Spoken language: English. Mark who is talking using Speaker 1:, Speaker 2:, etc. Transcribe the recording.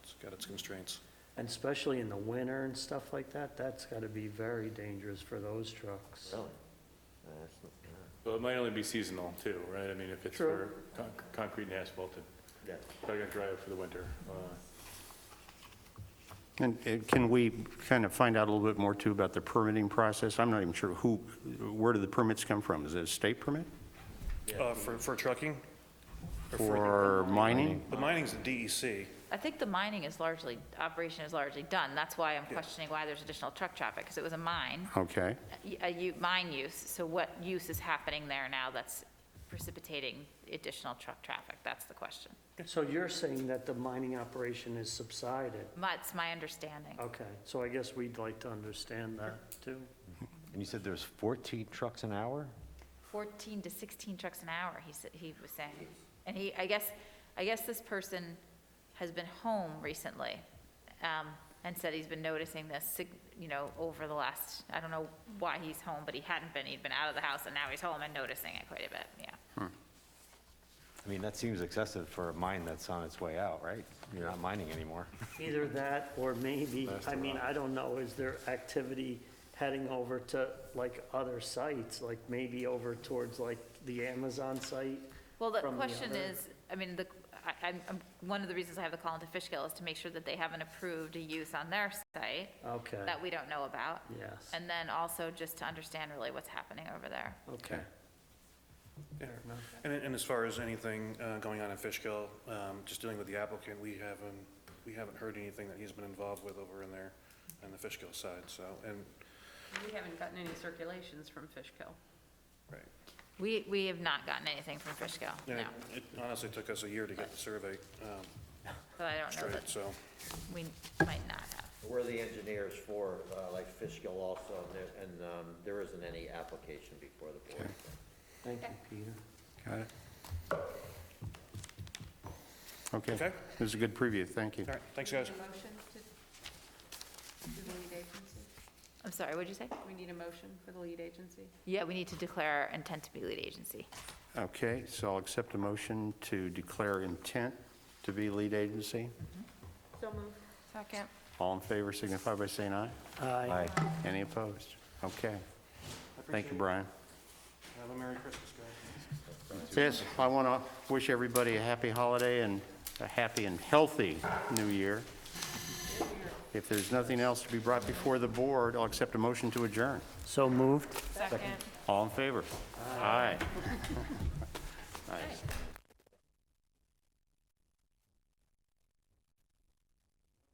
Speaker 1: got its constraints.
Speaker 2: And especially in the winter and stuff like that, that's got to be very dangerous for those trucks.
Speaker 3: Really? Uh, that's not- yeah.
Speaker 4: Well, it might only be seasonal too, right? I mean, if it's for
Speaker 2: True.
Speaker 4: con- concrete and asphalt, it's probably gonna dry up for the winter. Uh,
Speaker 5: And and can we kind of find out a little bit more, too, about the permitting process? I'm not even sure who, where do the permits come from? Is it a state permit?
Speaker 1: Uh, For, for trucking? Or
Speaker 5: For mining?
Speaker 1: The mining's E the DEC.
Speaker 6: I think the mining is largely, operation is largely done. That's why I'm questioning why there's additional truck traffic, because it was a mine,
Speaker 5: Okay,
Speaker 6: a u- mine use. So what use is happening there now that's precipitating additional truck traffic? That's the question.
Speaker 2: So you're saying that the mining operation is subsided?
Speaker 6: That's my understanding.
Speaker 2: Okay, so I guess we'd like to understand that, too.
Speaker 3: And you said there's 14 trucks an hour?
Speaker 6: 14 to 16 trucks an hour, he said, he was saying. And he, I guess, I guess this person has been home recently, um, and said he's been noticing this, sig- you know, over the last, I don't know why he's home, but he hadn't been, he'd been out of the house, and now he's home and noticing it quite a bit, yeah.
Speaker 3: I mean, that seems excessive for a mine that's on its way out, right? You're not mining anymore.
Speaker 2: Either that, or maybe, I mean, I don't know, is there activity heading over to, like, other sites? Like, maybe over towards, like, the Amazon site?
Speaker 6: Well, the
Speaker 2: from the
Speaker 6: question
Speaker 2: other-
Speaker 6: is, I mean, the, I, I'm, I'm- one of the reasons I have the call into Fishkill is to make sure that they haven't approved a use on their site
Speaker 2: Okay,
Speaker 6: that we don't know about.
Speaker 2: yes,
Speaker 6: And then also just to understand really what's happening over there.
Speaker 2: okay.
Speaker 1: Yeah.
Speaker 2: Fair enough.
Speaker 1: And, and as far as anything uh, going on in Fishkill, um, just dealing with the applicant, we haven't, we haven't heard anything that he's been involved with over in there on the Fishkill side, so, and,
Speaker 7: We haven't gotten any circulations from Fishkill.
Speaker 1: right.
Speaker 6: We, we have not gotten anything from Fishkill,
Speaker 1: And
Speaker 6: no.
Speaker 1: it- It honestly took us a year to get the survey um,
Speaker 6: But I don't know
Speaker 1: straight,
Speaker 6: that,
Speaker 1: so.
Speaker 6: we might not have.
Speaker 8: We're the engineers for, uh, like Fishkill also, and there- and um, there isn't any application before the board.
Speaker 2: Thank you, Peter.
Speaker 5: got it. Okay.
Speaker 1: Okay.
Speaker 5: This is a good preview, thank you.
Speaker 1: All right, thanks, guys.
Speaker 7: Need a motion to, do the lead agency?
Speaker 6: I'm sorry, what'd you say?
Speaker 7: We need a motion for the lead agency?
Speaker 6: Yeah, we need to declare our intent to be lead agency.
Speaker 5: Okay, so I'll accept a motion to declare intent to be lead agency.
Speaker 7: So moved.
Speaker 6: Second.
Speaker 5: All in favor signify by saying aye.
Speaker 2: Aye.
Speaker 5: Any opposed? Okay. Thank you, Brian.
Speaker 1: Have a Merry Christmas, guys.
Speaker 5: Yes, I want to wish everybody a happy holiday and a happy and healthy new year. If there's nothing else to be brought before the board, I'll accept a motion to adjourn.
Speaker 2: So moved?
Speaker 6: Second.
Speaker 5: All in favor? Aye.